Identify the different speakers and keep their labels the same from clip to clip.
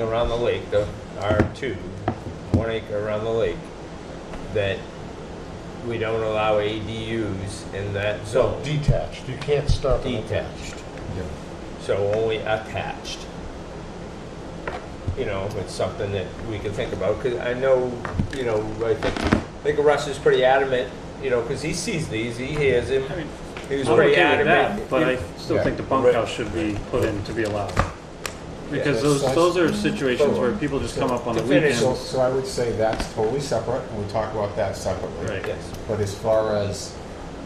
Speaker 1: around the lake, the R2, one acre around the lake, that we don't allow ADUs in that
Speaker 2: So
Speaker 1: zone,
Speaker 2: detached, you can't start them
Speaker 1: detached,
Speaker 3: Yeah.
Speaker 1: so only attached. You know, it's something that we can think about, because I know, you know, I think, I think Russ is pretty adamant, you know, because he sees these, he hears him,
Speaker 4: I mean,
Speaker 1: he was
Speaker 4: I'm
Speaker 1: pretty
Speaker 4: okay with
Speaker 1: adamant.
Speaker 4: that, but I
Speaker 3: Yeah.
Speaker 4: still think the bunkhouse should be put in to be allowed. Because
Speaker 2: Yeah.
Speaker 4: those,
Speaker 3: That's-
Speaker 4: those are situations where people just come up on the
Speaker 1: To finish
Speaker 3: So,
Speaker 4: weekends.
Speaker 3: so I would say that's totally separate, and we'll talk about that separately.
Speaker 4: Right.
Speaker 1: Yes,
Speaker 3: But as far as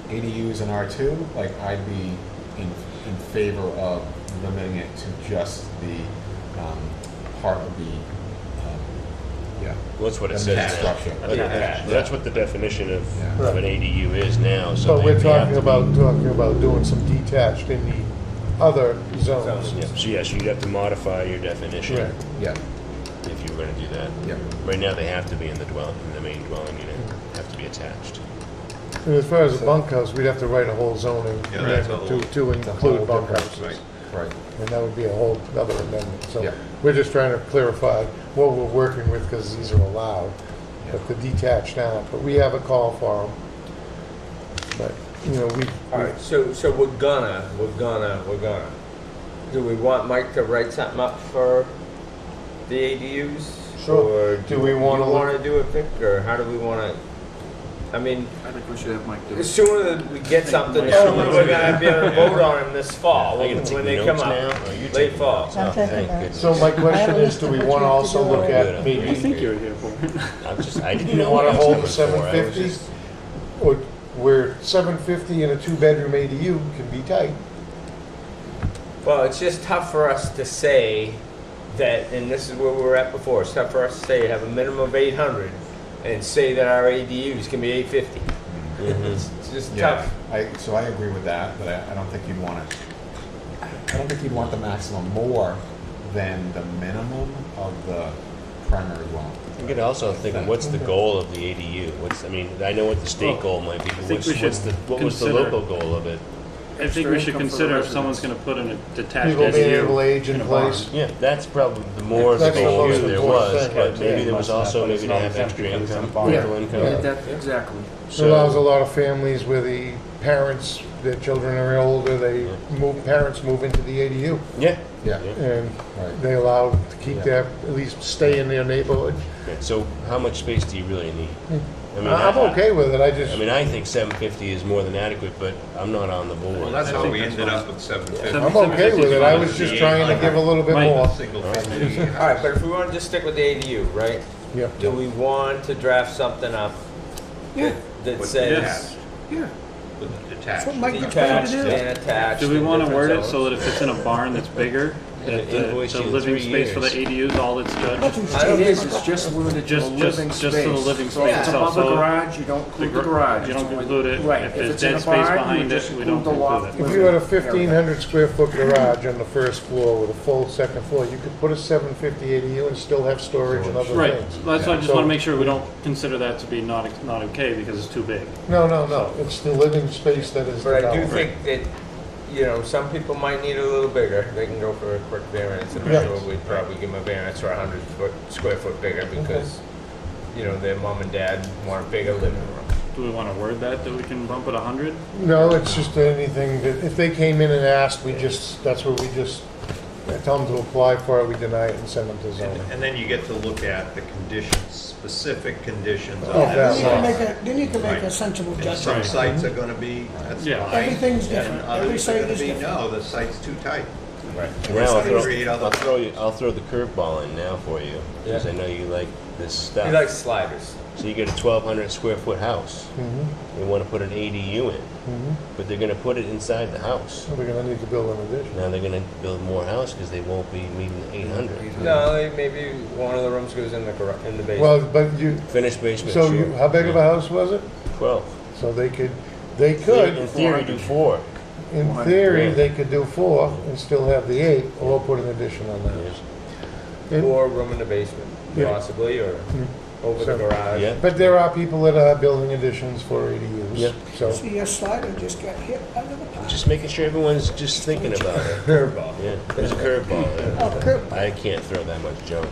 Speaker 3: ADUs and R2, like, I'd be in, in favor of limiting it to just the, um, part of the, um, yeah.
Speaker 5: That's what
Speaker 3: the main
Speaker 5: it says now.
Speaker 3: structure.
Speaker 1: Attached.
Speaker 5: That's what the definition of,
Speaker 3: Yeah.
Speaker 5: of an ADU is now, so
Speaker 2: But
Speaker 5: they
Speaker 2: we're
Speaker 5: they have
Speaker 2: talking
Speaker 5: to be.
Speaker 2: about, talking about doing some detached in the other zones.
Speaker 1: Zones.
Speaker 5: Yeah, So yes, you'd have to modify your definition
Speaker 2: Right.
Speaker 3: Yeah,
Speaker 5: if you were gonna do that.
Speaker 3: yeah.
Speaker 5: Right now, they have to be in the dwelling, in the main dwelling unit, have to be attached.
Speaker 2: And as far as the bunkhouse, we'd have to write a whole zoning
Speaker 6: Yeah,
Speaker 2: amendment
Speaker 6: that's a
Speaker 2: to,
Speaker 6: whole-
Speaker 2: to
Speaker 3: It's a
Speaker 2: include
Speaker 3: whole different-
Speaker 2: bunkhouses.
Speaker 3: Right,
Speaker 2: And that would be a whole other amendment.
Speaker 3: Yeah.
Speaker 2: So we're just trying to clarify what we're working with because these are allowed, but the detached now, but we have a call for them. But, you know, we,
Speaker 1: All right, so, so we're gonna, we're gonna, we're gonna. Do we want Mike to write something up for the ADUs?
Speaker 2: Sure.
Speaker 1: Or
Speaker 2: Do we wanna
Speaker 1: You
Speaker 2: look-
Speaker 1: wanna do it, Vic, or how do we wanna? I mean,
Speaker 6: I think we should have Mike do
Speaker 1: the
Speaker 6: it.
Speaker 1: sooner that we get something, the
Speaker 4: Mike's
Speaker 1: sooner we're gonna be able to vote on them this fall,
Speaker 5: Are you
Speaker 1: when
Speaker 5: gonna take
Speaker 1: they come
Speaker 5: notes
Speaker 1: up.
Speaker 5: now? Are you
Speaker 1: Late
Speaker 5: taking
Speaker 1: fall.
Speaker 5: notes?
Speaker 7: I'm
Speaker 5: Oh,
Speaker 7: taking
Speaker 5: thank
Speaker 7: notes.
Speaker 5: goodness.
Speaker 2: so my question
Speaker 7: I
Speaker 2: is, do we want to also look at
Speaker 4: I
Speaker 2: maybe,
Speaker 4: think you were here for.
Speaker 5: I'm just, I didn't
Speaker 2: You
Speaker 5: know.
Speaker 2: wanna
Speaker 5: what I was
Speaker 2: hold
Speaker 5: looking
Speaker 2: the
Speaker 5: for. I was
Speaker 2: 750?
Speaker 5: just-
Speaker 2: or where seven fifty in a two-bedroom ADU can be tight?
Speaker 1: Well, it's just tough for us to say that, and this is where we were at before, it's tough for us to say have a minimum of eight hundred and say that our ADUs can be eight fifty.
Speaker 4: Mm-hmm.
Speaker 1: It's just
Speaker 3: yeah.
Speaker 1: tough.
Speaker 3: I, so I agree with that, but I, I don't think you'd want to, I don't think you'd want the maximum more than the minimum of the primary dwelling.
Speaker 5: You could also think, what's the goal of the ADU? What's, I mean, I know what the state
Speaker 4: Well,
Speaker 5: goal might be, but
Speaker 4: think
Speaker 5: what's,
Speaker 4: we should
Speaker 5: what's the, what was the
Speaker 4: consider-
Speaker 5: local goal of it?
Speaker 4: I think
Speaker 6: Extra
Speaker 4: we should
Speaker 6: income for the
Speaker 4: consider if
Speaker 6: residents.
Speaker 4: someone's gonna put in a detached
Speaker 2: People being able to
Speaker 4: ADU
Speaker 2: age
Speaker 4: in
Speaker 2: in
Speaker 4: a barn.
Speaker 2: place.
Speaker 5: Yeah, that's probably the more of the
Speaker 2: That's the
Speaker 5: goal
Speaker 2: most
Speaker 5: that there
Speaker 2: important
Speaker 5: was,
Speaker 2: thing,
Speaker 5: but
Speaker 2: I'd
Speaker 5: maybe
Speaker 2: say.
Speaker 5: there was also,
Speaker 3: But it's
Speaker 5: maybe to
Speaker 3: not
Speaker 5: have
Speaker 3: exempt
Speaker 5: extra
Speaker 3: because
Speaker 5: income,
Speaker 3: it's barn.
Speaker 5: rental
Speaker 2: Yeah.
Speaker 5: income.
Speaker 6: That- exactly.
Speaker 2: It allows a lot of families where the parents, their children are older, they move, parents move into the ADU.
Speaker 5: Yeah.
Speaker 3: Yeah,
Speaker 2: And
Speaker 3: Right.
Speaker 2: they allow to keep their, at least stay in their neighborhood.
Speaker 5: Yeah, So how much space do you really need? I mean,
Speaker 2: I'm
Speaker 5: I-
Speaker 2: okay with it, I
Speaker 5: I
Speaker 2: just,
Speaker 5: mean, I think seven fifty is more than adequate, but I'm not on the
Speaker 6: Well,
Speaker 5: board.
Speaker 6: that's how we ended up with
Speaker 4: Seven-
Speaker 6: 750.
Speaker 2: I'm okay with it, I was
Speaker 6: 750
Speaker 2: just trying to give a little bit
Speaker 4: Mike.
Speaker 2: more.
Speaker 6: Single
Speaker 5: All right.
Speaker 6: family.
Speaker 1: All right, but if we want to just stick with the ADU, right?
Speaker 2: Yeah.
Speaker 1: Do we want to draft something up
Speaker 6: Yeah.
Speaker 1: that
Speaker 6: With
Speaker 1: says
Speaker 6: detached.
Speaker 7: Yeah.
Speaker 6: With detached.
Speaker 7: That's what Mike-
Speaker 1: detached
Speaker 7: Yeah.
Speaker 1: and attached?
Speaker 4: Do we
Speaker 1: in
Speaker 4: wanna
Speaker 1: different
Speaker 4: word it so
Speaker 1: zones?
Speaker 4: that if it's in a barn that's bigger, that the,
Speaker 5: invoice
Speaker 4: the
Speaker 5: you in
Speaker 4: living
Speaker 5: three
Speaker 4: space for the
Speaker 5: years.
Speaker 4: ADUs, all it's judged,
Speaker 1: I don't
Speaker 7: It
Speaker 1: think-
Speaker 7: is, it's just limited to the
Speaker 4: Just- just-
Speaker 7: living
Speaker 4: just
Speaker 7: space.
Speaker 4: to the living
Speaker 7: So if
Speaker 4: space
Speaker 7: it's
Speaker 4: itself.
Speaker 7: above a
Speaker 4: So
Speaker 7: garage, you don't include the garage.
Speaker 4: you don't
Speaker 7: It's only-
Speaker 4: include it.
Speaker 7: Right.
Speaker 4: If
Speaker 7: If
Speaker 4: there's
Speaker 7: it's in
Speaker 4: dead
Speaker 7: a
Speaker 4: space
Speaker 7: barn, you
Speaker 4: behind it,
Speaker 7: just
Speaker 4: we
Speaker 7: include
Speaker 4: don't
Speaker 7: the
Speaker 4: include
Speaker 7: loft
Speaker 4: it.
Speaker 2: If you had a
Speaker 7: living area.
Speaker 2: fifteen hundred square foot garage on the first floor with a full second floor, you could put a seven fifty ADU and still have storage and other
Speaker 4: right,
Speaker 2: things.
Speaker 4: that's why I just
Speaker 2: So-
Speaker 4: wanna make sure we don't consider that to be not, not okay because it's too big.
Speaker 2: No, no, no, it's the living space that is.
Speaker 1: But I do
Speaker 2: developed.
Speaker 1: think that, you know, some people might need a little bigger. They can go for a quick variance, and I'm
Speaker 2: Yeah.
Speaker 1: sure we'd probably give them a variance for a hundred foot, square foot bigger because, you know, their mom and dad want a bigger living room.
Speaker 4: Do we wanna word that, that we can bump it a hundred?
Speaker 2: No, it's just anything that, if they came in and asked, we just, that's what we just, tell them to apply for it, we deny it and send them to zoning.
Speaker 6: And then you get to look at the conditions, specific conditions of
Speaker 2: Oh,
Speaker 6: that
Speaker 2: that's
Speaker 7: Then you can
Speaker 2: all.
Speaker 6: zone.
Speaker 7: make a, then you can make a
Speaker 6: Right.
Speaker 7: sensible
Speaker 6: And some
Speaker 7: judgment.
Speaker 6: sites are gonna be, that's
Speaker 4: Yeah.
Speaker 6: fine.
Speaker 7: Everything's
Speaker 6: And
Speaker 7: different, every
Speaker 6: others are
Speaker 7: site
Speaker 6: gonna
Speaker 7: is
Speaker 6: be,
Speaker 7: different.
Speaker 6: no, the site's too tight.
Speaker 1: Right.
Speaker 5: Now, I'll
Speaker 6: Something
Speaker 5: throw,
Speaker 6: create other-
Speaker 5: I'll throw you, I'll throw the curveball in now for you, because
Speaker 1: Yeah.
Speaker 5: I know you like this
Speaker 1: He
Speaker 5: stuff.
Speaker 1: likes sliders.
Speaker 5: So you get a twelve hundred square foot house,
Speaker 2: Mm-hmm.
Speaker 5: they wanna put an ADU in, but they're gonna put it inside the house.
Speaker 2: So we're gonna need to build an addition.
Speaker 5: Now they're gonna build more house, because they won't be meeting the eight hundred.
Speaker 1: No, like, maybe one of the rooms goes in the garage, in the basement.
Speaker 2: Well, but you,
Speaker 5: Finished basement,
Speaker 2: so you,
Speaker 5: sure.
Speaker 2: how big of a house was it?
Speaker 5: Twelve.
Speaker 2: So they could, they
Speaker 5: In
Speaker 2: could,
Speaker 5: theory, do four.
Speaker 2: in theory, they could do four and still have the eight, or put an addition on that. And-
Speaker 1: Or a room in the basement,
Speaker 2: Yeah. Mm-hmm.
Speaker 1: possibly, or over the
Speaker 2: So-
Speaker 1: garage.
Speaker 5: Yeah.
Speaker 2: But there are people that are building additions for ADUs. issues, so.
Speaker 8: See, your slider just got hit by another pile.
Speaker 5: Just making sure everyone's just thinking about it.
Speaker 1: Curveball.
Speaker 5: Yeah, there's a curveball there.
Speaker 8: Oh, curb.
Speaker 5: I can't throw that much junk.